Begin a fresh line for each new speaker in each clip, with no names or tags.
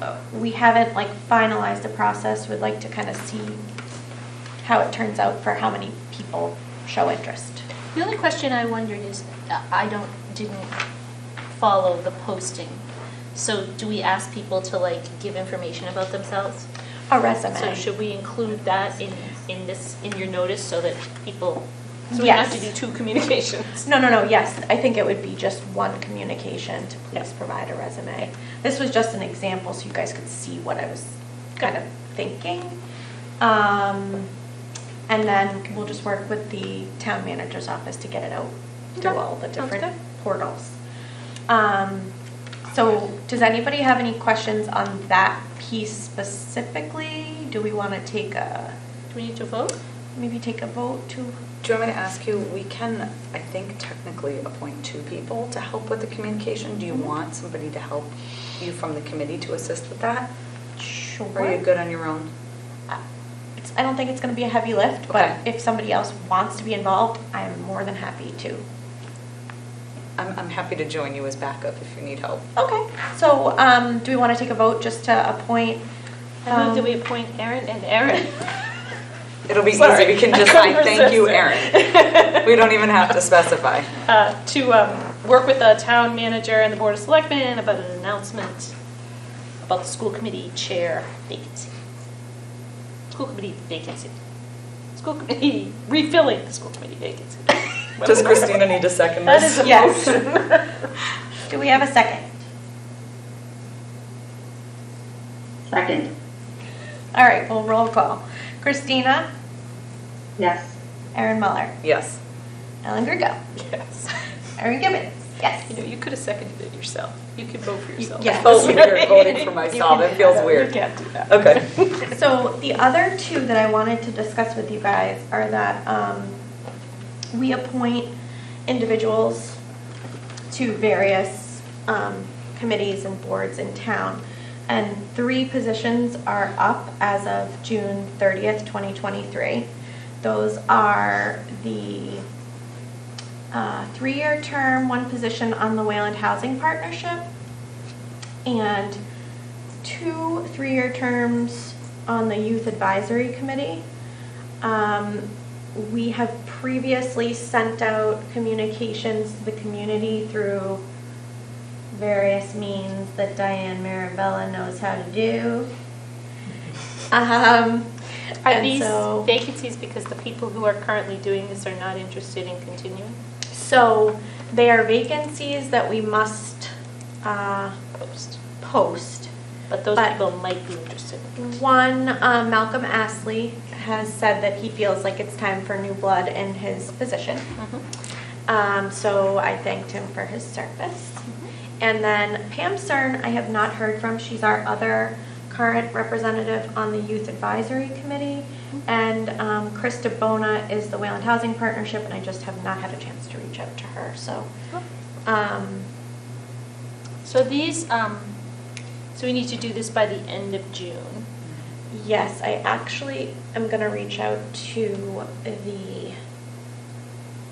uh, we haven't like finalized the process, would like to kind of see how it turns out for how many people show interest.
The only question I wondered is, uh, I don't, didn't follow the posting. So do we ask people to like give information about themselves?
A resume.
So should we include that in, in this, in your notice so that people, so we don't have to do
Yes.
two communications?
No, no, no, yes, I think it would be just one communication to please provide a resume. This was just an example so you guys could see what I was kind of thinking. Um, And then we'll just work with the town manager's office to get it out through
Okay,
all the
sounds
different
good.
portals. Um, So does anybody have any questions on that piece specifically? Do we want to take a,
Do we need to
Um,
vote?
maybe take a vote to,
Do you want me to ask you, we can, I think technically appoint two people to help with the communication. Do you
Mm-hmm.
want somebody to help you from the committee to assist with that?
sure?
Or are you good on your own?
It's, I don't think it's gonna be a heavy lift,
Okay.
but if somebody else wants to be involved, I'm more than happy to.
I'm, I'm happy to join you as backup if you need help.
Okay, so, um, do we wanna take a vote just to appoint?
I move that
um,
we appoint Erin and Erin.
It'll be easy,
Sorry,
we can
I
just
couldn't
sign, thank you,
resist
Erin. We don't even have to specify.
uh, to um, work with the town manager and the board of selectmen about an announcement about the school committee chair vacancy. School committee vacancy. School committee, refilling the school committee vacancy.
Does Christina need a second
That is
this?
a
Yes.
motion.
Do we have a second?
Second,
All right, well, roll call. Christina,
yes.
Erin Muller,
Yes.
Ellen Grigo,
Yes.
Erin Gibbons,
You
yes.
know, you could have seconded it yourself. You could vote for yourself.
yeah.
I felt weird oh, voting for myself, it feels
You
weird.
can't do that.
Okay.
So the other two that I wanted to discuss with you guys are that, um, we appoint individuals to various um, committees and boards in town. And three positions are up as of June 30th, 2023. Those are the uh, three-year term, one position on the Wayland Housing Partnership, and two three-year terms on the Youth Advisory Committee. Um, We have previously sent out communications to the community through various means that Diane Marabella knows how to do. Um,
Are
and
these
so-
vacancies because the people who are currently doing this are not interested in continuing?
So they are vacancies that we must uh,
Post.
post.
But those
But-
people might be interested.
One, um, Malcolm Astley has said that he feels like it's time for new blood in his position.
Mm-hmm.
Um, so I thanked him for his service. And then Pam Stern, I have not heard from. She's our other current representative on the Youth Advisory Committee. And um, Krista Bona is the Wayland Housing Partnership, and I just have not had a chance to reach out to her. So,
Mm-hmm.
um,
So these, um, so we need to do this by the end of June.
yes, I actually am going to reach out to the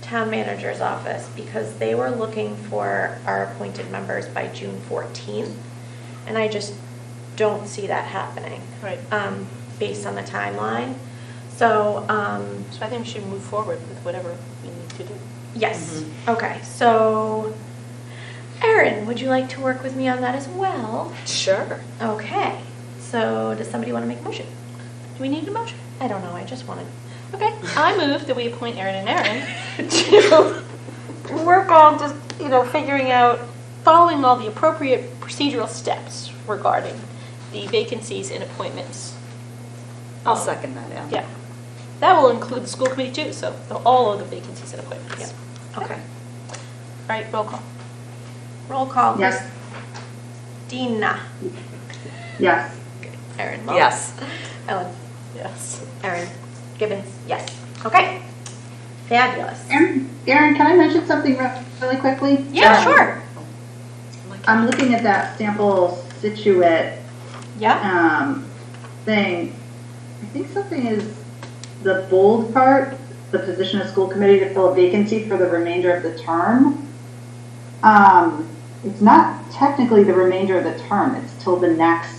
town manager's office because they were looking for our appointed members by June 14th. And I just don't see that happening.
Right.
um, based on the timeline. So, um,
So I think we should move forward with whatever we need to do.
yes, okay, so, Erin, would you like to work with me on that as well?
Sure.
Okay, so does somebody want to make a motion?
Do we need a motion?
I don't know, I just wanted,
Okay, I move that we appoint Erin and Erin to work on just, you know, figuring out, following all the appropriate procedural steps regarding the vacancies and appointments.
I'll
Um,
second that, yeah.
Yeah. That will include the school committee too, so the- all of the vacancies and appointments.
okay,
All right, roll call.
roll call.
Yes.
Dina.
Yes.
Erin. Muller.
Yes.
Ellen.
Yes.
Erin. Gibbons, yes, okay. Fabulous.
Erin, Erin, can I mention something re- really quickly?
Yeah,
Um,
sure,
I'm looking at that sample Situate
yeah,
um, thing. I think something is the bold part, the position of school committee to fill a vacancy for the remainder of the term. Um, It's not technically the remainder of the term, it's till the next